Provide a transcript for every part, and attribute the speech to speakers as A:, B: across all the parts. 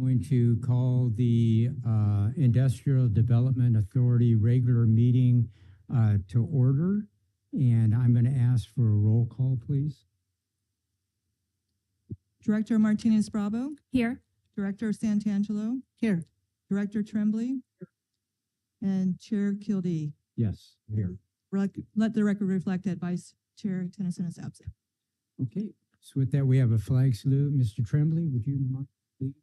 A: Going to call the uh, Industrial Development Authority regular meeting uh, to order. And I'm going to ask for a roll call, please.
B: Director Martinez Bravo,
C: Here.
B: Director Santangelo. Here. Director Tremblay. And Chair Kildee.
A: Yes, here.
B: Rec- Let the record reflect that Vice Chair Tennyson is absent.
A: Okay, so with that, we have a flag salute. Mr. Tremblay, would you mind? please?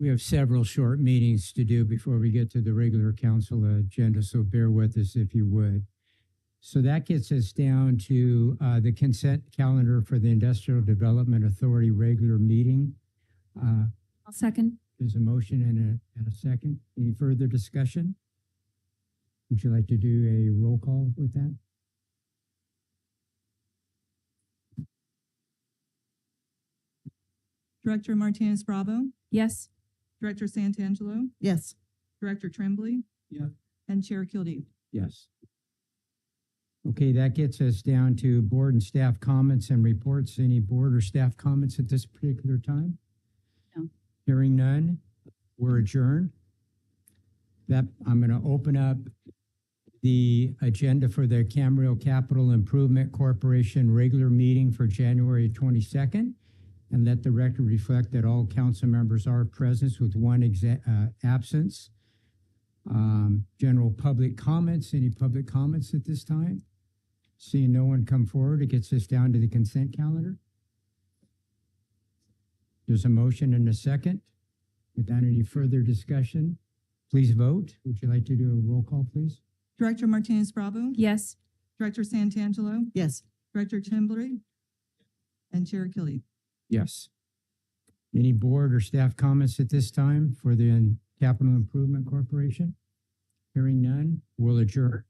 A: We have several short meetings to do before we get to the regular council agenda, so bear with us if you would. So that gets us down to uh, the consent calendar for the Industrial Development Authority regular meeting. Uh,
C: I'll second.
A: There's a motion and a, and a second. Any further discussion? Would you like to do a roll call with that?
B: Director Martinez Bravo,
C: Yes.
B: Director Santangelo. Yes. Director Tremblay.
A: Yeah.
B: And Chair Kildee.
A: Yes. Okay, that gets us down to board and staff comments and reports. Any board or staff comments at this particular time?
C: No.
A: Hearing none, we're adjourned. That, I'm going to open up the agenda for the Camrio Capital Improvement Corporation regular meeting for January 22nd. And let the record reflect that all council members are present with one exa- uh, absence. Um, General public comments, any public comments at this time? Seeing no one come forward, it gets us down to the consent calendar. There's a motion and a second. Without any further discussion, please vote. Would you like to do a roll call, please?
B: Director Martinez Bravo,
C: Yes.
B: Director Santangelo. Yes. Director Tremblay. And Chair Kildee.
A: Yes. Any board or staff comments at this time for the Capital Improvement Corporation? Hearing none, we'll adjourn.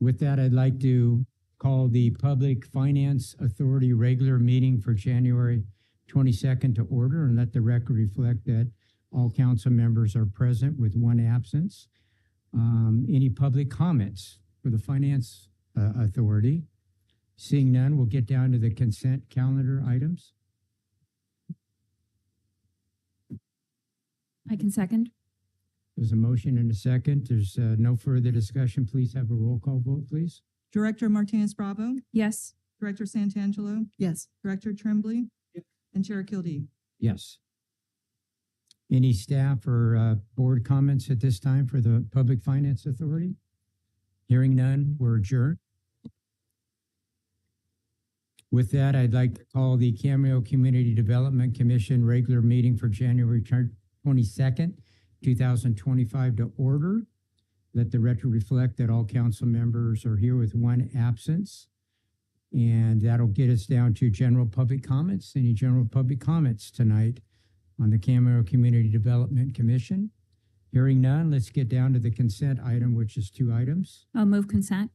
A: With that, I'd like to call the Public Finance Authority regular meeting for January 22nd to order and let the record reflect that all council members are present with one absence. Um, Any public comments for the Finance uh, Authority? Seeing none, we'll get down to the consent calendar items.
C: I can second.
A: There's a motion and a second. There's uh, no further discussion. Please have a roll call vote, please.
B: Director Martinez Bravo,
C: Yes.
B: Director Santangelo. Yes. Director Tremblay. And Chair Kildee.
A: Yes. Any staff or uh, board comments at this time for the Public Finance Authority? Hearing none, we're adjourned. With that, I'd like to call the Cameo Community Development Commission regular meeting for January twenty-second, two thousand twenty-five to order. Let the record reflect that all council members are here with one absence. And that'll get us down to general public comments. Any general public comments tonight on the Camaro Community Development Commission? Hearing none, let's get down to the consent item, which is two items.
C: I'll move consent.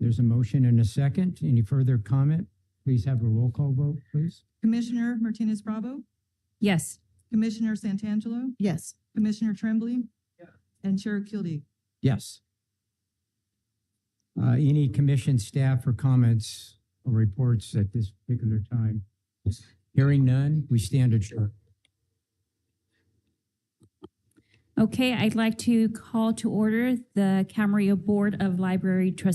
A: There's a motion and a second. Any further comment? Please have a roll call vote, please.
B: Commissioner Martinez Bravo,
C: Yes.
B: Commissioner Santangelo. Yes. Commissioner Tremblay. And Chair Kildee.
A: Yes. Uh, any commission staff or comments or reports at this particular time? Hearing none, we stand adjourned.
C: Okay, I'd like to call to order the Camarillo Board of Library Trustees